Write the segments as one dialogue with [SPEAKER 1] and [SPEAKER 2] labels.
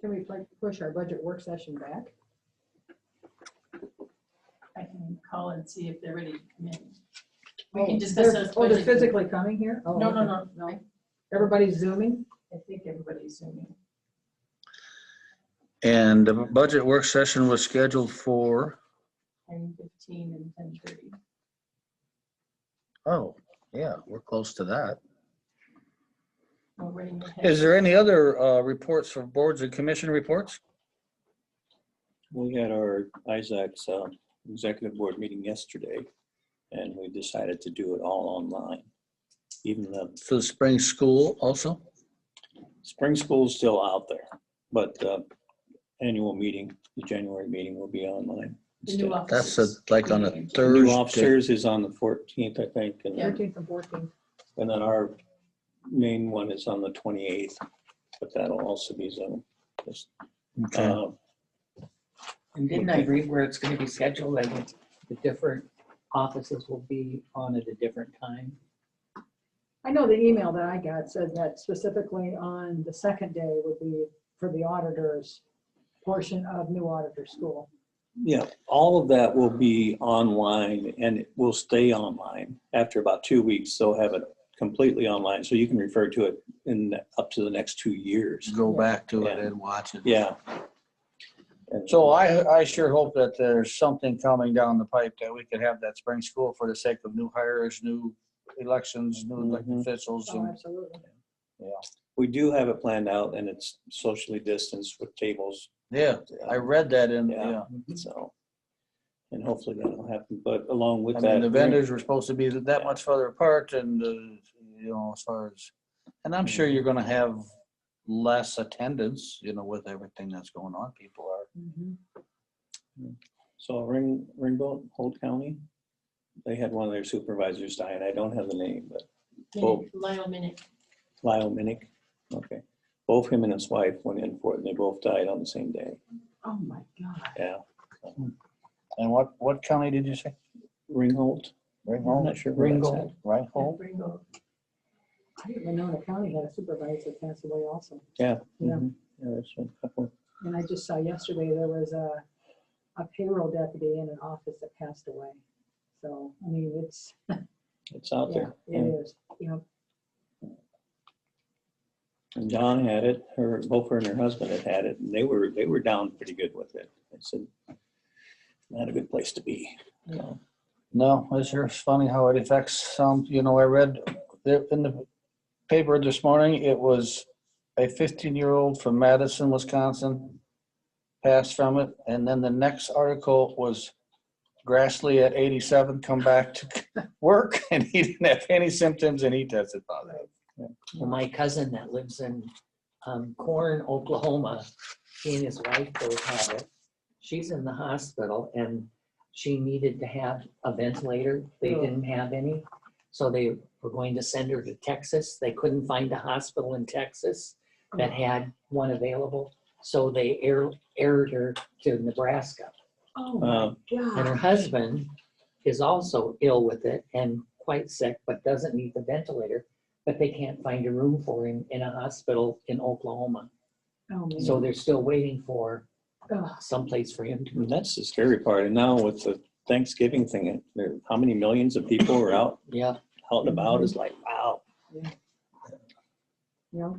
[SPEAKER 1] Can we pl- push our budget work session back?
[SPEAKER 2] I can call and see if they're ready to come in.
[SPEAKER 1] We
[SPEAKER 2] can discuss those
[SPEAKER 1] Oh, they're
[SPEAKER 2] budget-
[SPEAKER 1] physically coming here? Oh,
[SPEAKER 2] No, no,
[SPEAKER 1] okay.
[SPEAKER 2] no, no.
[SPEAKER 1] Everybody's zooming?
[SPEAKER 2] I think everybody's zooming.
[SPEAKER 3] And the budget work session was scheduled for,
[SPEAKER 2] ten fifteen and ten thirty.
[SPEAKER 3] oh, yeah, we're close to that.
[SPEAKER 2] We're running ahead.
[SPEAKER 3] Is there any other uh, reports for boards and commission reports?
[SPEAKER 4] We had our Isaac's uh, executive board meeting yesterday, and we decided to do it all online. Even the
[SPEAKER 3] For the spring school also?
[SPEAKER 4] spring school's still out there, but uh, annual meeting, the January meeting will be online.
[SPEAKER 2] The new
[SPEAKER 4] instead.
[SPEAKER 3] That's a-
[SPEAKER 2] offices.
[SPEAKER 3] like on a
[SPEAKER 4] New
[SPEAKER 3] Thursday.
[SPEAKER 4] officers is on the 14th, I think, and then-
[SPEAKER 1] 13th and 14th.
[SPEAKER 4] and then our main one is on the 28th, but that'll also be Zoom. Just,
[SPEAKER 3] Okay.
[SPEAKER 4] uh,
[SPEAKER 5] And didn't I read where it's gonna be scheduled, like it's- the different offices will be on at a different time?
[SPEAKER 1] I know the email that I got said that specifically on the second day would be for the auditors portion of new auditor school.
[SPEAKER 4] Yeah, all of that will be online and it will stay online after about two weeks. They'll have it completely online, so you can refer to it in up to the next two years.
[SPEAKER 3] Go back to it and watch it.
[SPEAKER 4] Yeah. And
[SPEAKER 3] So I, I sure hope that there's something coming down the pipe that we could have that spring school for the sake of new hires, new elections, new elected
[SPEAKER 4] Mhm.
[SPEAKER 3] officials
[SPEAKER 1] Oh,
[SPEAKER 3] and
[SPEAKER 1] absolutely.
[SPEAKER 4] we do have it planned out and it's socially distanced with tables.
[SPEAKER 3] yeah, I read that in, uh,
[SPEAKER 4] Yeah.
[SPEAKER 3] yeah.
[SPEAKER 4] So, and hopefully that'll happen, but along with
[SPEAKER 3] I
[SPEAKER 4] that.
[SPEAKER 3] mean, the vendors were supposed to be that much further apart and, uh, you know, as far as, and I'm sure you're gonna have less attendance, you know, with everything that's going on. People are,
[SPEAKER 1] Mhm.
[SPEAKER 4] So Ring, Ringgold, Holt County, they had one of their supervisors die and I don't have the name, but
[SPEAKER 2] Minute,
[SPEAKER 3] oh.
[SPEAKER 2] Lyle Minute.
[SPEAKER 4] Lyle Minnick. Okay. Both him and his wife went in for it and they both died on the same day.
[SPEAKER 2] Oh, my God.
[SPEAKER 4] Yeah.
[SPEAKER 3] and what, what county did you say?
[SPEAKER 4] Ringholt?
[SPEAKER 3] Ringgold?
[SPEAKER 4] I'm not sure where that's
[SPEAKER 3] Ringgold, right, Hold.
[SPEAKER 2] Ringo.
[SPEAKER 1] I didn't even know the county had a supervisor that passed away also.
[SPEAKER 4] Yeah.
[SPEAKER 1] Yeah.
[SPEAKER 4] mhm. Yeah, there's a couple.
[SPEAKER 1] And I just saw yesterday, there was a, a payroll deputy in an office that passed away. So, I mean, it's,
[SPEAKER 4] It's out
[SPEAKER 1] yeah,
[SPEAKER 4] there.
[SPEAKER 1] it is, you know,
[SPEAKER 4] And Dawn had it, her, both her and her husband had had it, and they were, they were down pretty good with it. I said, not a good place to be. So,
[SPEAKER 3] No, it's just funny how it affects some, you know, I read there in the paper this morning, it was a fifteen-year-old from Madison, Wisconsin, passed from it, and then the next article was Grassley at eighty-seven come back to work, and he didn't have any symptoms, and he tested positive.
[SPEAKER 5] Well, my cousin that lives in um, Corn, Oklahoma, he and his wife both have it. She's in the hospital and she needed to have a ventilator. They
[SPEAKER 1] Oh.
[SPEAKER 5] didn't have any. So they were going to send her to Texas. They couldn't find a hospital in Texas that had one available. So they air, aired her to Nebraska.
[SPEAKER 1] oh
[SPEAKER 4] uh,
[SPEAKER 1] my
[SPEAKER 5] And her
[SPEAKER 1] God.
[SPEAKER 5] husband is also ill with it and quite sick, but doesn't need the ventilator. But they can't find a room for him in a hospital in Oklahoma.
[SPEAKER 1] Oh, man.
[SPEAKER 5] So they're still waiting for
[SPEAKER 1] Ugh.
[SPEAKER 5] someplace for him
[SPEAKER 4] and
[SPEAKER 5] to.
[SPEAKER 4] That's the scary part. And now with the Thanksgiving thing, there, how many millions of people are out,
[SPEAKER 5] Yeah,
[SPEAKER 4] out and about
[SPEAKER 1] Mm-hmm.
[SPEAKER 4] is like, wow.
[SPEAKER 1] You know,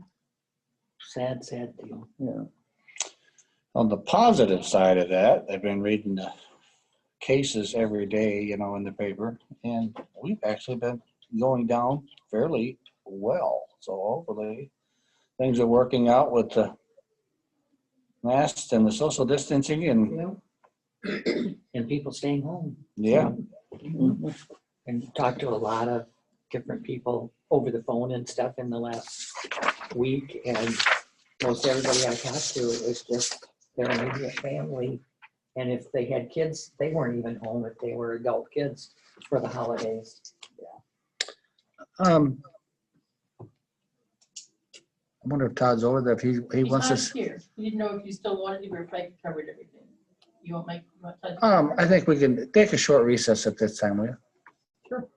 [SPEAKER 5] sad, sad deal.
[SPEAKER 4] Yeah.
[SPEAKER 3] On the positive side of that, I've been reading the cases every day, you know, in the paper, and we've actually been going down fairly well. So hopefully, things are working out with the masks and the social distancing,
[SPEAKER 1] you
[SPEAKER 3] and
[SPEAKER 1] know,
[SPEAKER 5] And people staying home.
[SPEAKER 3] yeah,
[SPEAKER 4] Mhm.
[SPEAKER 5] Mm-hmm. And talked to a lot of different people over the phone and stuff in the last week. And most everybody I talked to, it was just their immediate family. And if they had kids, they weren't even home if they were adult kids for the holidays.
[SPEAKER 3] um, I wonder if Todd's over there, if he, he
[SPEAKER 2] He's
[SPEAKER 3] wants
[SPEAKER 2] not
[SPEAKER 3] us.
[SPEAKER 2] here. You didn't know if you still wanted to, or if I covered everything. You want Mike? you want Todd?
[SPEAKER 3] Um, I think we can take a short recess at this time, will you?
[SPEAKER 1] Sure.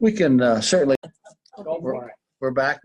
[SPEAKER 3] We can uh, certainly,
[SPEAKER 5] Go for it.
[SPEAKER 3] we're back.